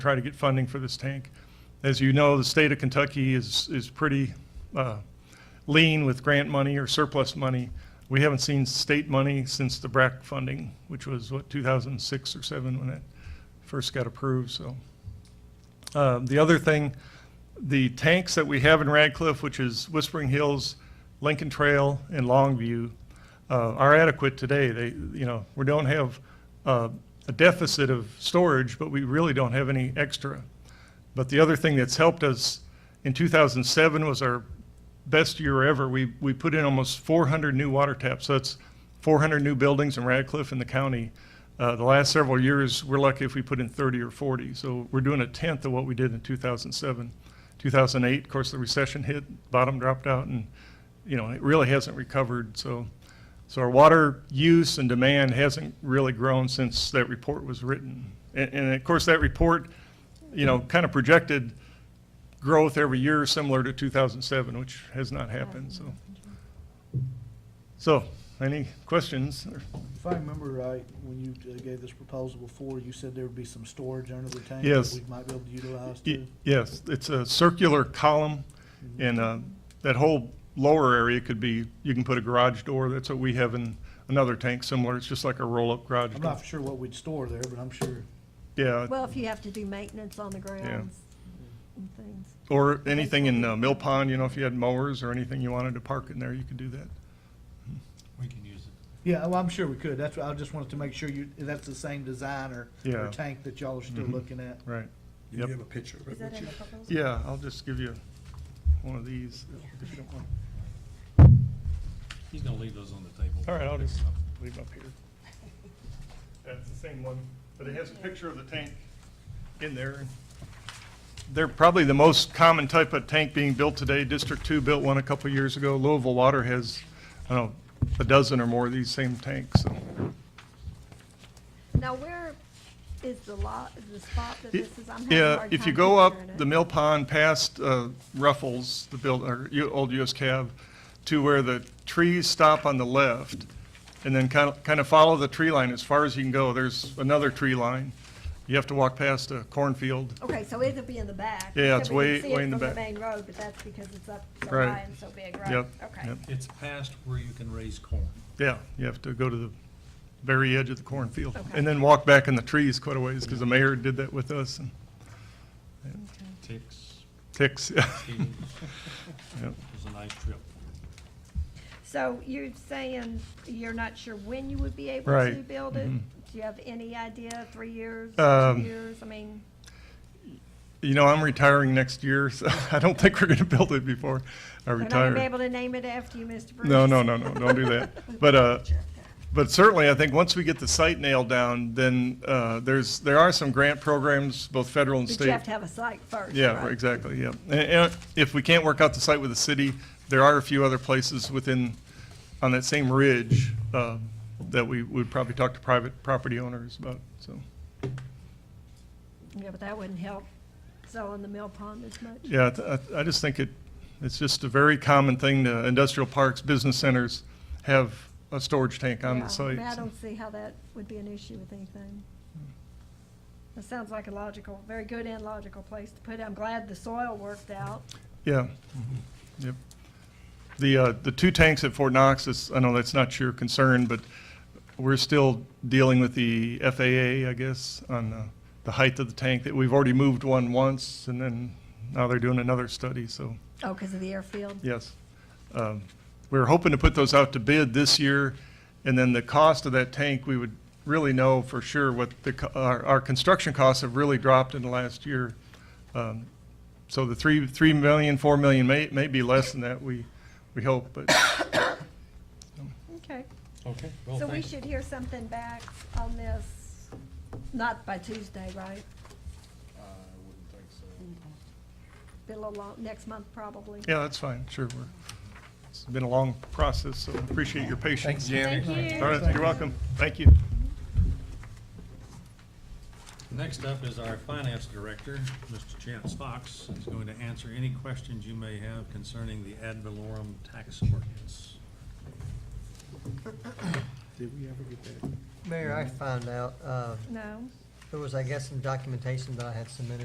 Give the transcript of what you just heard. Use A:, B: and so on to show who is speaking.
A: try to get funding for this tank. As you know, the state of Kentucky is, is pretty uh, lean with grant money or surplus money. We haven't seen state money since the BRAC funding, which was, what, 2006 or 7 when it first got approved, so. Uh, The other thing, the tanks that we have in Radcliffe, which is Whispering Hills, Lincoln Trail, and Longview, uh, are adequate today. They, you know, we don't have uh, a deficit of storage, but we really don't have any extra. But the other thing that's helped us in 2007 was our best year ever. We, we put in almost 400 new water taps. So that's 400 new buildings in Radcliffe and the county. Uh, the last several years, we're lucky if we put in 30 or 40. So we're doing a tenth of what we did in 2007. 2008, of course, the recession hit, bottom dropped out, and you know it really hasn't recovered. So, so our water use and demand hasn't really grown since that report was written. And, and of course, that report, you know, kind of projected growth every year similar to 2007, which has not happened, so. So, any questions? or-
B: If I remember right, when you uh, gave this proposal before, you said there would be some storage under the tank.
A: Yes.
B: That we might be able to utilize
A: Y-
B: too.
A: Yes, it's a circular column, and uh, that whole lower area could be, you can put a garage door, that's what we have in another tank similar, it's just like a roll-up garage
B: I'm
A: door.
B: not sure what we'd store there, but I'm sure.
A: Yeah,
C: Well, if you have to do maintenance on the grounds and things.
A: or anything in uh, Mill Pond, you know, if you had mowers or anything you wanted to park in there, you could do that.
D: We can use it.
B: Yeah, well, I'm sure we could. That's, what- I just wanted to make sure you, that's the same design or,
A: Yeah. Mm-hmm.
B: or tank that y'all are still looking at.
A: Right.
E: Do you
A: Yep.
E: have a picture of it?
C: Is that
E: Would
C: in
E: you-
C: the proposal?
A: Yeah, I'll just give you one of these, if you don't want.
D: He's gonna leave those on the table.
A: All right, I'll just leave up here. That's the same one, but it has a picture of the tank in there. They're probably the most common type of tank being built today. District Two built one a couple of years ago. Louisville Water has, I don't know, a dozen or more of these same tanks, so.
C: Now, where is the lot, is the spot that this is? I'm having a
A: Yeah,
C: hard
A: if you
C: time
A: go up
C: picturing it.
A: the Mill Pond past uh, Ruffles, the build, or U- old US Cab, to where the trees stop on the left, and then kind of, kind of follow the tree line as far as you can go, there's another tree line. You have to walk past a cornfield.
C: Okay, so it'd be in the back.
A: Yeah,
C: so
A: it's
C: we can
A: way-
C: see it
A: way in the back.
C: From the main road, but that's because it's up so
A: Right.
C: high and so big, right?
A: Yep,
C: Okay.
A: yep.
D: It's past where you can raise corn.
A: Yeah, you have to go to the very edge of the cornfield,
C: Okay.
A: and then walk back in the trees quite a ways, because the mayor did that with us, and
D: Ticks,
A: ticks.
D: beetles.
A: Yep.
D: It was a nice trip.
C: So you're saying you're not sure when you would be able
A: Right,
C: to build it?
A: mhm.
C: Do you have any idea, three years, two
A: Um,
C: years? I mean,
A: You know, I'm retiring next year, so I don't think we're gonna build it before I
C: they're not
A: retire.
C: gonna be able to name it after you, Mr. Bruce.
A: No, no, no, no, don't do that. But, uh, but certainly, I think once we get the site nailed down, then, uh, there's, there are some grant programs, both federal and
C: But
A: state.
C: you have to have a site first,
A: Yeah,
C: right?
A: exactly, yeah. And, and if we can't work out the site with the city, there are a few other places within, on that same ridge, uh, that we would probably talk to private property owners about, so.
C: Yeah, but that wouldn't help selling the mill pond as much.
A: Yeah, I th- I, I just think it, it's just a very common thing, the industrial parks, business centers have a storage tank on
C: Yeah,
A: the site.
C: I mean, I
A: um, so.
C: don't see how that would be an issue with anything. That sounds like a logical, very good and logical place to put it. I'm glad the soil worked out.
A: Yeah, Mm-hmm. yep. The, uh, the two tanks at Fort Knox, is- I know that's not your concern, but we're still dealing with the FAA, I guess, on uh, the height of the tank, that we've already moved one once, and then now they're doing another study, so,
C: Oh, because of the airfield?
A: yes. Um, We were hoping to put those out to bid this year, and then the cost of that tank, we would really know for sure what the, co- our, our construction costs have really dropped in the last year. Um, so the three, three million, four million may, may be less than that, we, we hope, but,
C: Okay.
D: Okay. well,
C: So we
D: thank you.
C: should hear something back on this, not by Tuesday, right?
E: I wouldn't think so.
C: Been a little long, next month probably.
A: yeah, that's fine, sure. we're- It's been a long process, so appreciate your patience.
C: Thank you.
A: All right, you're welcome, thank you.
D: Next up is our finance director, Mr. Chance Fox. He's going to answer any questions you may have concerning the ad valorem tax ordinance.
E: Did we ever get that?
F: Mayor, I found out, uh,
C: No?
F: There was, I guess, some documentation that I had submitted